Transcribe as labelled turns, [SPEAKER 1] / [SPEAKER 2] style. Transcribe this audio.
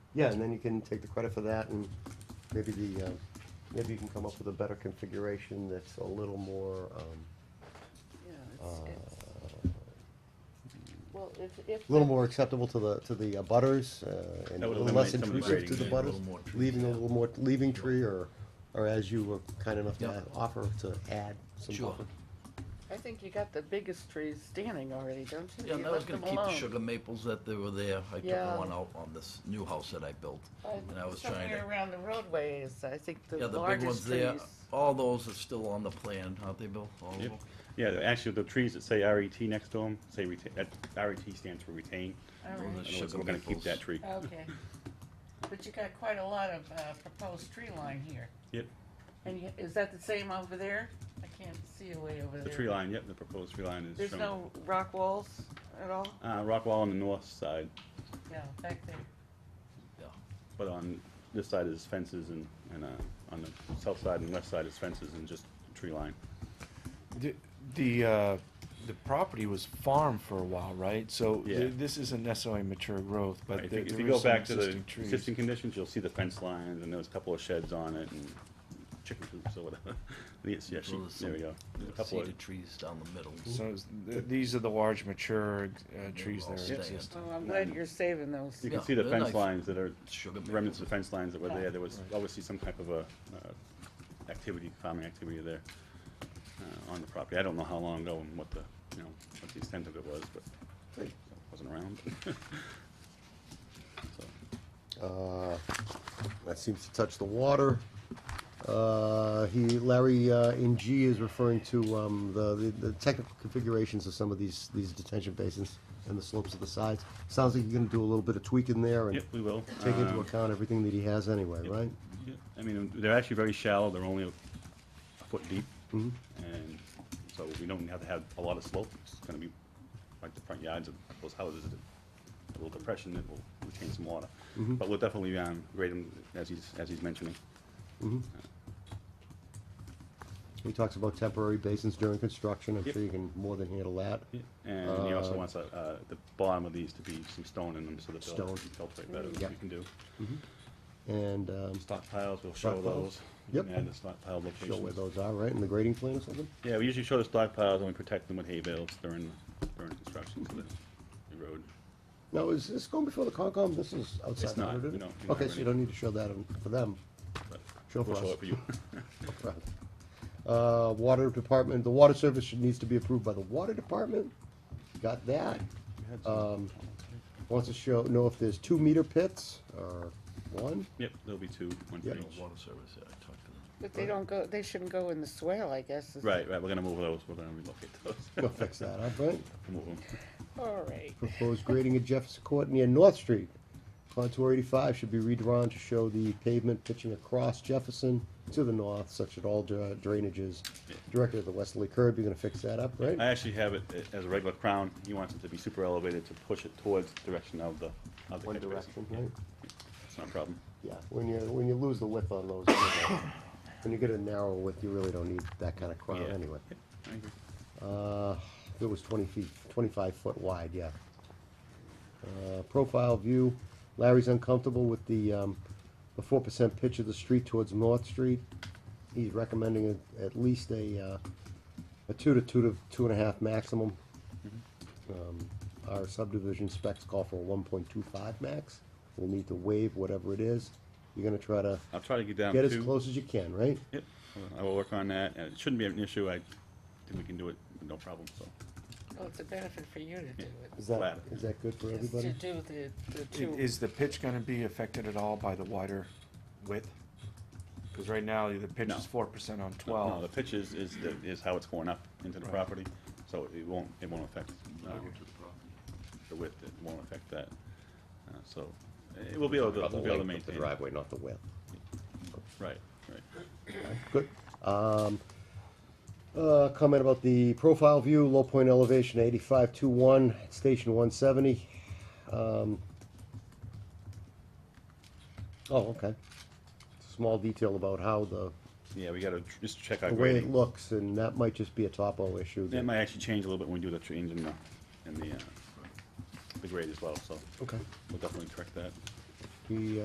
[SPEAKER 1] Yeah, and then you can take the credit for that and maybe the, um, maybe you can come up with a better configuration that's a little more, um,
[SPEAKER 2] Yeah,
[SPEAKER 1] uh,
[SPEAKER 2] it's, it's, well, if, if.
[SPEAKER 1] a little
[SPEAKER 2] the-
[SPEAKER 1] more acceptable to the, to the uh, butters, uh, and a
[SPEAKER 3] That would
[SPEAKER 1] little less
[SPEAKER 3] eliminate some of the
[SPEAKER 1] intrusive to
[SPEAKER 3] grading
[SPEAKER 1] the
[SPEAKER 3] and a
[SPEAKER 1] butters.
[SPEAKER 3] little more trees,
[SPEAKER 1] Leaving a
[SPEAKER 3] yeah.
[SPEAKER 1] little more, leaving tree or, or as you were kind enough
[SPEAKER 3] Yeah.
[SPEAKER 1] to offer to add some
[SPEAKER 4] Sure.
[SPEAKER 1] buffer.
[SPEAKER 2] I think you got the biggest trees standing already, don't you?
[SPEAKER 4] Yeah,
[SPEAKER 2] You
[SPEAKER 4] and I was
[SPEAKER 2] left
[SPEAKER 4] gonna
[SPEAKER 2] them
[SPEAKER 4] keep the
[SPEAKER 2] alone.
[SPEAKER 4] sugar maples that they were there. I
[SPEAKER 2] Yeah.
[SPEAKER 4] took one out on this new house that I built.
[SPEAKER 2] Uh,
[SPEAKER 4] And I was trying
[SPEAKER 2] Somewhere
[SPEAKER 4] to,
[SPEAKER 2] around the roadways, I think the
[SPEAKER 4] yeah, the big ones
[SPEAKER 2] largest
[SPEAKER 4] there,
[SPEAKER 2] trees.
[SPEAKER 4] all those are still on the plan, aren't they, Bill? All of
[SPEAKER 3] Yep.
[SPEAKER 4] them?
[SPEAKER 3] Yeah, the- actually, the trees that say RET next to them, say retain, that RET stands for retain.
[SPEAKER 2] All
[SPEAKER 4] Well,
[SPEAKER 2] right.
[SPEAKER 3] In other words, we're gonna keep that tree.
[SPEAKER 2] Okay. But you got quite a lot of uh, proposed tree line here.
[SPEAKER 3] Yep,
[SPEAKER 2] And you- is that the same over there? I can't see away over there.
[SPEAKER 3] the tree line, yep, the proposed tree line is
[SPEAKER 2] There's
[SPEAKER 3] shown.
[SPEAKER 2] no rock walls at all?
[SPEAKER 3] Uh, rock wall on the north side,
[SPEAKER 2] Yeah, back there.
[SPEAKER 4] Yeah.
[SPEAKER 3] but on this side is fences and, and, uh, on the south side and west side is fences and just tree line.
[SPEAKER 5] The, the, uh, the property was farmed for a while, right? So
[SPEAKER 3] Yeah.
[SPEAKER 5] th- this isn't necessarily mature growth,
[SPEAKER 3] Right,
[SPEAKER 5] but
[SPEAKER 3] If
[SPEAKER 5] there
[SPEAKER 3] you- if you
[SPEAKER 5] there
[SPEAKER 3] go
[SPEAKER 5] is some
[SPEAKER 3] back to
[SPEAKER 5] existing
[SPEAKER 3] the
[SPEAKER 5] trees.
[SPEAKER 3] existing conditions, you'll see the fence lines and there's a couple of sheds on it and chicken coops or whatever. Yes, yeah,
[SPEAKER 4] So there's
[SPEAKER 3] she- there we
[SPEAKER 4] some-
[SPEAKER 3] go. There's a
[SPEAKER 4] there's
[SPEAKER 3] couple of,
[SPEAKER 4] Cedar trees down the middle.
[SPEAKER 5] So it's- th- these are the large mature uh, trees
[SPEAKER 4] all
[SPEAKER 5] that are
[SPEAKER 4] staying.
[SPEAKER 5] existing.
[SPEAKER 2] Well, I'm glad you're saving those.
[SPEAKER 3] you can
[SPEAKER 4] Yeah,
[SPEAKER 3] see the
[SPEAKER 4] they're
[SPEAKER 3] fence
[SPEAKER 4] nice.
[SPEAKER 3] lines that are
[SPEAKER 4] Sugar
[SPEAKER 3] remnants of
[SPEAKER 4] maples.
[SPEAKER 3] the fence lines that were there, there was
[SPEAKER 5] Right.
[SPEAKER 3] obviously some type of a, uh, activity, farming activity there, uh, on the property. I don't know how long ago and what the, you know, what the extent of it was, but I wasn't around. So,
[SPEAKER 1] Uh, That seems to touch the water. Uh, He, Larry, uh, in G is referring to um, the, the- the technical configurations of some of these, these detention basins and the slopes of the sides. Sounds like you're gonna do a little bit of tweaking there and
[SPEAKER 3] Yep, we will.
[SPEAKER 1] take into
[SPEAKER 3] Um,
[SPEAKER 1] account everything that he has anyway,
[SPEAKER 3] Yep.
[SPEAKER 1] right?
[SPEAKER 3] Yeah, I mean, they're actually very shallow, they're only a a foot deep,
[SPEAKER 1] Mhm.
[SPEAKER 3] and so we don't have to have a lot of slope, it's gonna be like the front yards of those houses, a little depression that will retain some water.
[SPEAKER 1] Mhm.
[SPEAKER 3] But we'll definitely, um, grade them as he's, as he's mentioning.
[SPEAKER 1] Mhm. He talks about temporary basins during construction. I'm
[SPEAKER 3] Yep.
[SPEAKER 1] sure you can more than handle that.
[SPEAKER 3] And he also
[SPEAKER 1] Uh,
[SPEAKER 3] wants, uh, uh, the bottom of these to be some stone in them, so that they'll
[SPEAKER 1] Stone.
[SPEAKER 3] infiltrate better,
[SPEAKER 1] Yeah.
[SPEAKER 3] which we can do.
[SPEAKER 1] And um,
[SPEAKER 3] Stockpiles, we'll show
[SPEAKER 1] Stockpiles?
[SPEAKER 3] those, we can
[SPEAKER 1] Yep.
[SPEAKER 3] add the stockpile
[SPEAKER 1] show where
[SPEAKER 3] locations.
[SPEAKER 1] those are, right, in the grading plan or something?
[SPEAKER 3] Yeah, we usually show the stockpiles and we protect them with hay bales during, during construction, so that the road
[SPEAKER 1] No, is this going before the Concom? This is outside.
[SPEAKER 3] It's not.
[SPEAKER 1] isn't it?
[SPEAKER 3] We don't- we don't
[SPEAKER 1] Okay,
[SPEAKER 3] have
[SPEAKER 1] so
[SPEAKER 3] any.
[SPEAKER 1] you don't need to show that on- for them.
[SPEAKER 3] but
[SPEAKER 1] Show
[SPEAKER 3] we'll
[SPEAKER 1] for
[SPEAKER 3] show
[SPEAKER 1] us.
[SPEAKER 3] it for you.
[SPEAKER 1] Right. Uh, water department, the water service should- needs to be approved by the water department. Got that. Um, Wants to show, know if there's two meter pits or one.
[SPEAKER 3] Yep, there'll be two, one for
[SPEAKER 1] Yep.
[SPEAKER 3] each.
[SPEAKER 4] Water service, yeah, I talked to them.
[SPEAKER 2] But they don't go, they shouldn't go in the swale, I guess. is-
[SPEAKER 3] Right, right, we're gonna move those, we're gonna relocate those.
[SPEAKER 1] We'll fix that up, right?
[SPEAKER 3] Move 'em.
[SPEAKER 2] All right.
[SPEAKER 1] Proposed grading at Jefferson Court near North Street. Contour eighty-five should be redrawn to show the pavement pitching across Jefferson to the north, such that all dra- drainages directed at the westerly curb. You're gonna fix that up, right?
[SPEAKER 3] I actually have it a- as a regular crown, he wants it to be super elevated to push it towards the direction of the, of the
[SPEAKER 1] One
[SPEAKER 3] catch basin.
[SPEAKER 1] direction, right?
[SPEAKER 3] It's not a problem.
[SPEAKER 1] Yeah, when you, when you lose the width on those, when you get a narrow width, you really don't need that kind of crown
[SPEAKER 3] Yeah.
[SPEAKER 1] anyway.
[SPEAKER 3] I agree.
[SPEAKER 1] Uh, it was twenty feet, twenty-five foot wide, yeah. Uh, profile view, Larry's uncomfortable with the, um, the four percent pitch of the street towards North Street. He's recommending a- at least a, uh, a two to two to two and a half maximum. Um, Our subdivision specs call for a one point two five max. We'll need to waive whatever it is. You're gonna try to
[SPEAKER 3] I'll try to get down
[SPEAKER 1] get
[SPEAKER 3] to.
[SPEAKER 1] as close as you can, right?
[SPEAKER 3] Yep, I will work on that, and it shouldn't be an issue, I think we can do it, with no problem, so.
[SPEAKER 2] Well, it's a benefit for you to do it.
[SPEAKER 1] Is that,
[SPEAKER 3] Flat.
[SPEAKER 1] is that good for
[SPEAKER 2] Is to
[SPEAKER 1] everybody?
[SPEAKER 2] do the, the
[SPEAKER 5] I-
[SPEAKER 2] two.
[SPEAKER 5] Is the pitch gonna be affected at all by the wider width? Cause right now, the pitch
[SPEAKER 3] No.
[SPEAKER 5] is four percent on
[SPEAKER 3] No, the
[SPEAKER 5] twelve.
[SPEAKER 3] pitch is, is, the- is how it's going up into the
[SPEAKER 5] Right.
[SPEAKER 3] property, so it won't, it won't affect, uh,
[SPEAKER 4] Over to the property.
[SPEAKER 3] the width, it won't affect that. Uh, So, it will be able to, we'll be able to maintain. it.
[SPEAKER 1] not the width.
[SPEAKER 3] Right, right.
[SPEAKER 1] Good. Um, uh, comment about the profile view, low point elevation eighty-five two one, station one seventy. Um, oh, okay. Small detail about how the,
[SPEAKER 3] Yeah, we gotta tr- just check our
[SPEAKER 1] the way it
[SPEAKER 3] grading.
[SPEAKER 1] looks, and that might just be a topo issue.
[SPEAKER 3] That
[SPEAKER 1] that-
[SPEAKER 3] might actually change a little bit when we do the change in the, in the, uh, the grade as well, so
[SPEAKER 1] Okay.
[SPEAKER 3] we'll definitely correct that.
[SPEAKER 1] He,